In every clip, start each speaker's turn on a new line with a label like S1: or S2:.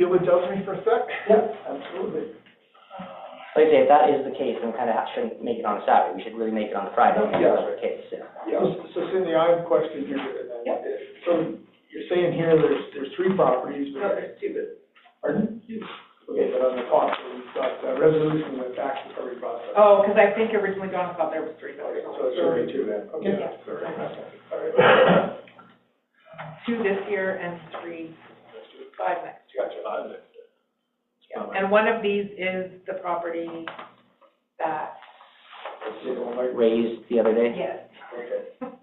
S1: you would judge me for a sec?
S2: Yep, absolutely.
S3: Like I say, if that is the case, then we kind of shouldn't make it on a Saturday, we should really make it on a Friday, if
S1: Yeah.
S3: that's the case, yeah.
S1: Yeah, so Cindy, I have a question here. and then-
S2: Yep.
S1: So you're saying here there's, there's three properties,
S2: No,
S1: but,
S2: it's stupid.
S1: pardon? Okay, but on the top, we've got uh, resolution with tax recovery process.
S4: Oh, because I think originally Donna thought there was three
S1: Okay,
S4: buildings.
S1: so it's already two then, okay.
S4: Yeah.
S1: Sorry. All right.
S4: Two this year and three, five next.
S1: Gotcha.
S4: year. And one of these is the property that,
S1: You know, like,
S3: Raised the other day,
S4: yes,
S1: okay.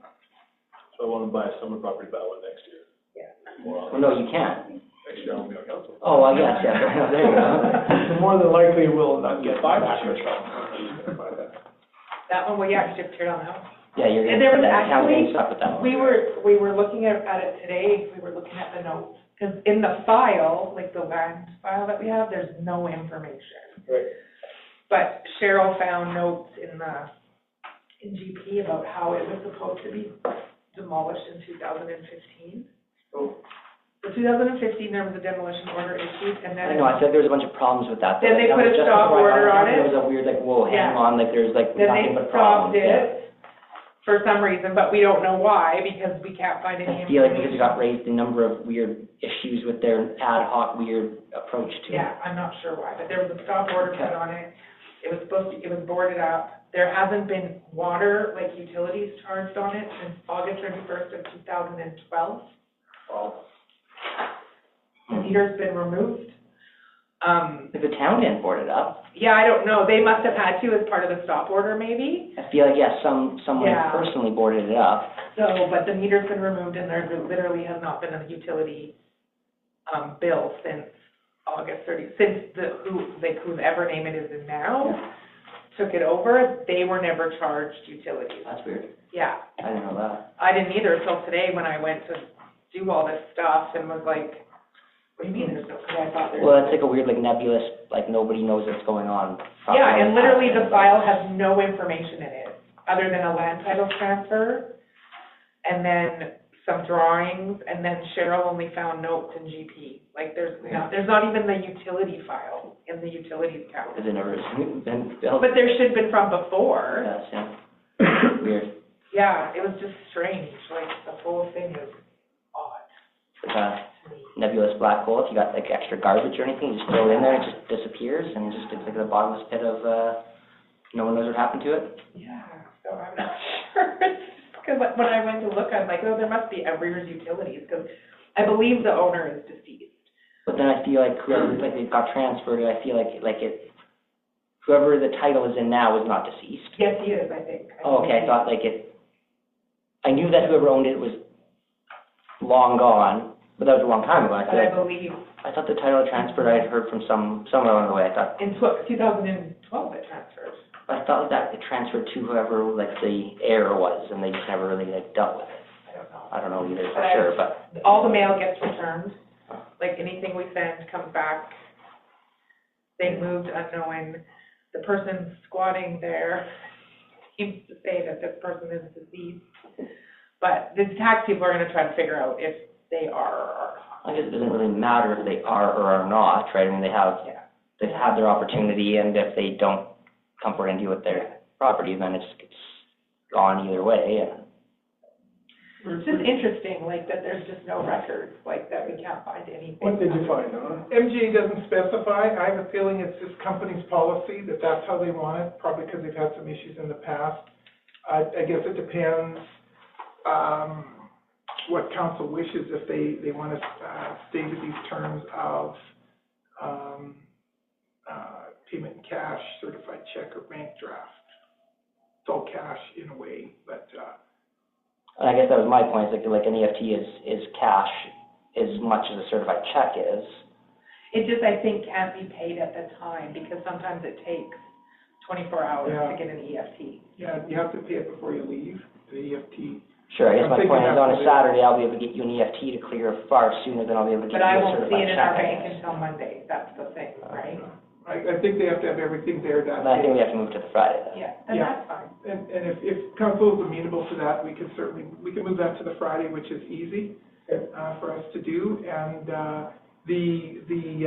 S5: So I want to buy a summer property by one next year.
S4: Yeah.
S3: well, no, you can't,
S5: Next year, I'll be on council.
S3: oh, well, yes, yeah, there you go.
S1: More than likely, we'll not get
S5: Buy
S1: back
S5: that.
S1: to it.
S4: that one, well, you actually have to tear down that one.
S3: Yeah, you're
S4: And there
S3: gonna,
S4: was
S3: that town's
S4: actually-
S3: gonna suck with that one.
S4: We were, we were looking at, at it today, we were looking at the notes, because in the file, like the land file that we have, there's no information.
S1: Right.
S4: But Cheryl found notes in the, in GP about how it was supposed to be demolished in two thousand and fifteen.
S1: Oh.
S4: So two thousand and fifteen, there was a demolition order issued, and
S3: I
S4: then,
S3: know, I said there was a bunch of problems with that. though.
S4: Then they
S3: That was
S4: put a
S3: just
S4: stop
S3: before I
S4: order
S3: got
S4: on
S3: here. It
S4: it.
S3: was a weird, like, whoa, hang
S4: Yeah.
S3: on, like, there's like
S4: then they
S3: nothing but
S4: stopped
S3: problems. yeah.
S4: it for some reason, but we don't know why, because we can't find any
S3: I
S4: information.
S3: feel like because it got raised, a number of weird issues with their ad hoc weird approach to it.
S4: Yeah, I'm not sure why, but there was a stop order put on it. It was supposed to, it was boarded up. There hasn't been water, like utilities charged on it since August thirty-first of two thousand and twelve. The meter's been removed. Um,
S3: If the town didn't board it up,
S4: yeah, I don't know. They must have had to as part of the stop order maybe.
S3: I feel like, yeah, some, someone
S4: Yeah.
S3: personally boarded it up.
S4: So, but the meter's been removed and there literally has not been a utility, um, bill since August thirty, since the, who, like, whoever name it is in now. took it over, they were never charged utilities.
S3: That's weird.
S4: Yeah,
S3: I didn't know that.
S4: I didn't either till today when I went to do all this stuff and was like, what do you mean there's no, because I thought there
S3: Well, it's like a weird, like nebulous, like nobody knows what's going on.
S4: Yeah, and literally the file has no information in it, other than a land title transfer, and then some drawings, and then Cheryl only found notes in GP. Like, there's not, there's not even the utility file in the utilities
S3: Because
S4: count.
S3: it never been built.
S4: But there should have been from before.
S3: Yes, yeah. Weird,
S4: Yeah, it was just strange, like, the whole thing was odd
S3: It's like a
S4: to me.
S3: nebulous black hole. If you got like extra garbage or anything, you just throw it in there, it just disappears and just it's like the bottomless pit of, uh, no one knows what happened to it.
S4: Yeah, so I'm not sure, because when I went to look, I'm like, oh, there must be arrears utilities, because I believe the owner is deceased.
S3: But then I feel like whoever, like it got transferred, I feel like, like it, whoever the title is in now is not deceased.
S4: Yes, he is, I think.
S3: Oh, okay, I thought like it, I knew that whoever owned it was long gone, but that was a long time ago. I
S4: But
S3: feel
S4: I
S3: like,
S4: believe
S3: I thought the title had transferred, I had heard from some, somewhere along the way, I thought,
S4: in tw- 2012 it transferred.
S3: I thought that it transferred to whoever, like, the heir was, and they just never really, like, dealt with it.
S4: I don't know.
S3: I don't know either for
S4: Right.
S3: sure, but
S4: All the mail gets returned, like anything we send comes back. They moved unknowing, the person squatting there seems to say that this person is deceased. But the tax people are gonna try to figure out if they are or are not.
S3: I guess it doesn't really matter if they are or are not, right? I mean, they have,
S4: Yeah.
S3: they've had their opportunity, and if they don't come forward and deal with their property, then it's, it's gone either way, and
S4: It's just interesting, like, that there's just no records, like, that we can't find anything.
S1: What did you find, Donna?
S2: MJ doesn't specify, I have a feeling it's this company's policy, that that's how they want it, probably because they've had some issues in the past. I, I guess it depends, um, what council wishes, if they, they want to, uh, stay to these terms of, um, uh, payment in cash, certified check, or bank draft. It's all cash in a way, but, uh,
S3: And I guess that was my point, is like, like an EFT is, is cash as much as a certified check is.
S4: It just, I think, can't be paid at the time, because sometimes it takes twenty-four hours
S2: Yeah.
S4: to get an E EFT.
S2: yeah, you have to pay it before you leave, the E EFT.
S3: Sure, I guess
S2: I'm
S3: my
S2: thinking
S3: point is, on a
S2: absolutely.
S3: Saturday, I'll be able to get you an EFT to clear far sooner than I'll be able to get
S4: But
S3: you
S4: I
S3: a
S4: won't
S3: certified check.
S4: see it in our
S3: I
S4: bank
S3: guess.
S4: until Monday, that's the thing, right?
S2: I, I think they have to have everything there that
S3: But I
S2: day.
S3: think we have to move to the Friday then.
S4: Yeah, and
S2: Yeah.
S4: that's fine.
S2: And, and if, if council is amenable to that, we can certainly, we can move that to the Friday, which is easy, uh, for us to do. And, uh, the, the,